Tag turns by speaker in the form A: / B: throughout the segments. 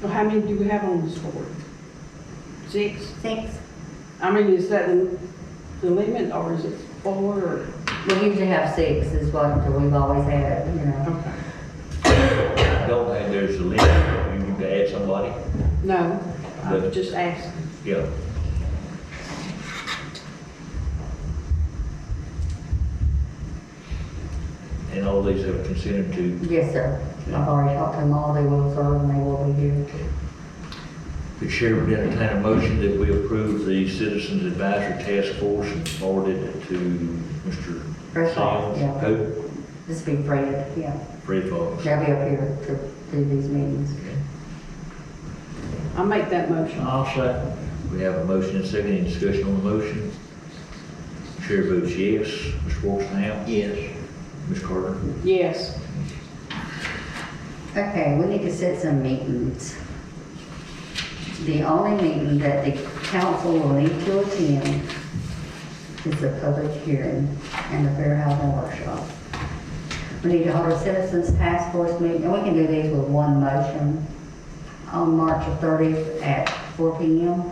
A: So how many do we have on this board? Six?
B: Six.
A: I mean, is that the the limit or is it four or?
B: We usually have six is what we've always had, you know.
A: Okay.
C: I don't think there's a limit, you need to add somebody,
A: No, I'm
C: But-
A: just asking.
C: yeah. And all these are considered to,
B: Yes, sir. I've already talked to them all. They will serve and they will be here.
C: the chair would entertain a motion that we approve the Citizens Advisory Task Force and forward it to Mr.
B: Fred Fox,
C: Sims.
B: yeah.
C: Who?
B: This be Fred, yeah.
C: Fred Fox.
B: They'll be up here to do these meetings.
A: I'll make that motion.
C: I'll second. We have a motion and second, any discussion on the motion? Chair votes yes. Mr. Wolfson? Yes. Ms. Carter?
A: Yes.
B: Okay, we need to set some meetings. The only meeting that the council will need to attend is the public hearing and the fair housing workshop. We need to hold a citizens task force meeting, and we can do these with one motion on March the 30th at 4 PM.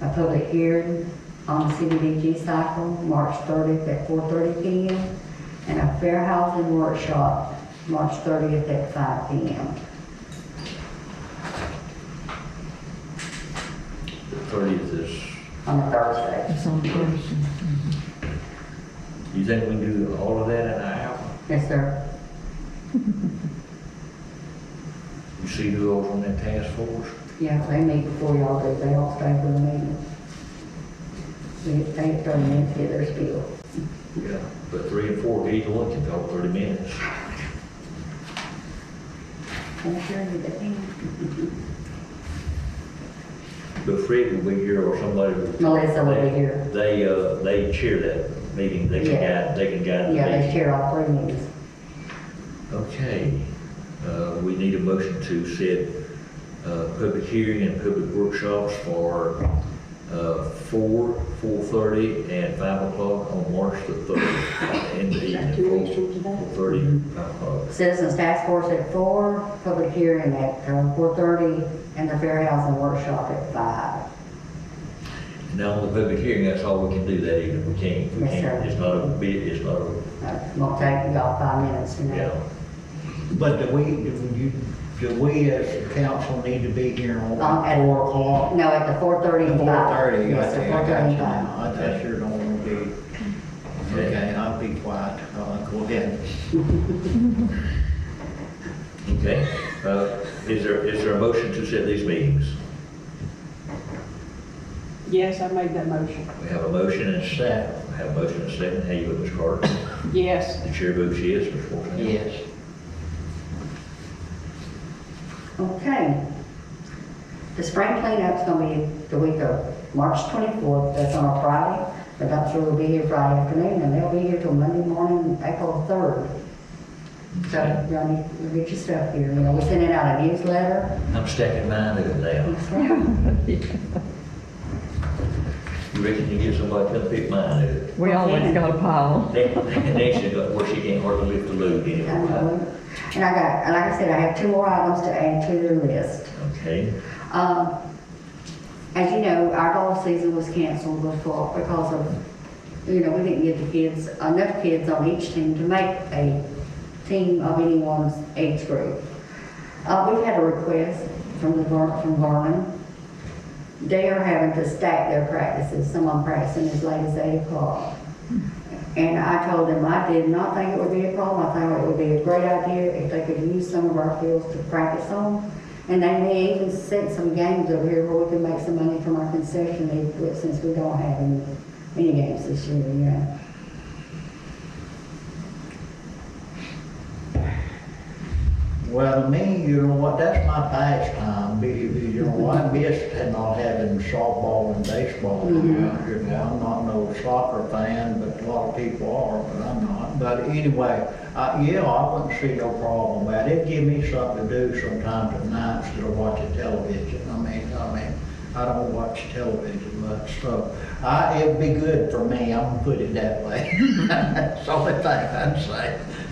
B: A public hearing on the CDBG cycle, March 30th at 4:30 PM. And a fair housing workshop, March 30th at 5 PM.
C: Thirtieth is,
B: on a Thursday.
D: It's on Thursday.
C: you think we can do all of that in an hour?
B: Yes, sir.
C: You see who else on that task force?
B: Yeah, they meet before y'all do, they all stay for the meeting. We get paid for them to get their spiel.
C: Yeah. But three and four, each one can go thirty minutes.
B: I'm sure you do.
C: But Fred will be here or somebody. will-
B: Melissa will be here.
C: They, uh, they chair that meeting, they can
B: Yeah.
C: guide, they can guide the
B: Yeah, they
C: meeting.
B: share all three meetings.
C: Okay, uh, we need a motion to set, uh, public hearing and public workshops for, uh, four, four-thirty and five o'clock on March the third. In the
A: Is that two weeks
C: evening,
A: from today?
C: four-thirty, five o'clock.
B: Citizens Task Force at four, public hearing at um, four thirty, and the Fair Housing Workshop at five.
C: Now, on the public hearing, that's all we can do that evening, we can't, we
B: Yes,
C: can't,
B: sir.
C: it's not a bid, it's not a,
B: Uh, Won't take y'all five minutes to
C: you
B: know.
C: know.
E: But do we, do you, do we as a council need to be here on
B: Um, at-
E: four o'clock?
B: No, at the four thirty and
E: Four
B: five.
E: thirty, I
B: Yes, sir,
E: think,
B: four
E: I
B: thirty
E: got you
B: and five.
E: now. I I sure don't want to be, okay, I'll be quiet, uh, go ahead.
C: Okay, uh, is there, is there a motion to set these meetings?
A: Yes, I made that motion.
C: We have a motion and a second, we have a motion and a second, how you vote, Ms. Carter?
A: Yes.
C: The chair votes yes, Ms. Wolfson?
E: Yes.
B: Okay. The spring cleanup's gonna be the week of March 24th, that's on a Friday. The dumpster will be here Friday afternoon, and they'll be here till Monday morning, April 3rd. So, y'all need to get your stuff here, you know, we're sending out a newsletter.
C: I'm stacking mine up now. You reckon you get somebody to come pick mine up?
D: We always got a pile.
C: They, they actually got where she can't hardly lift the load anymore.
B: And I got, and like I said, I have two more items to add to their list.
C: Okay,
B: Um, As you know, our golf season was canceled before because of, you know, we didn't get the kids, enough kids on each team to make a team of anyone's age group. Uh, We've had a request from the, Ver- from Vernon. They are having to stack their practices, someone practicing as late as eight o'clock. And I told them I did not think it would be a problem. I thought it would be a great idea if they could use some of our fields to practice on. And they may even set some games over here where we can make some money from our concession equipment since we don't have any, any games this year, you know.
E: Well, to me, you know what, that's my pastime, be, be- you know, I miss not having softball and baseball around here now. I'm not no soccer fan, but a lot of people are, but I'm not. But anyway, uh, yeah, I wouldn't see no problem with it. It give me something to do sometimes at night instead of watching television. I mean, I mean, I don't watch television much, so I, it'd be good for me, I'm gonna put it that way. That's the only thing I'd say.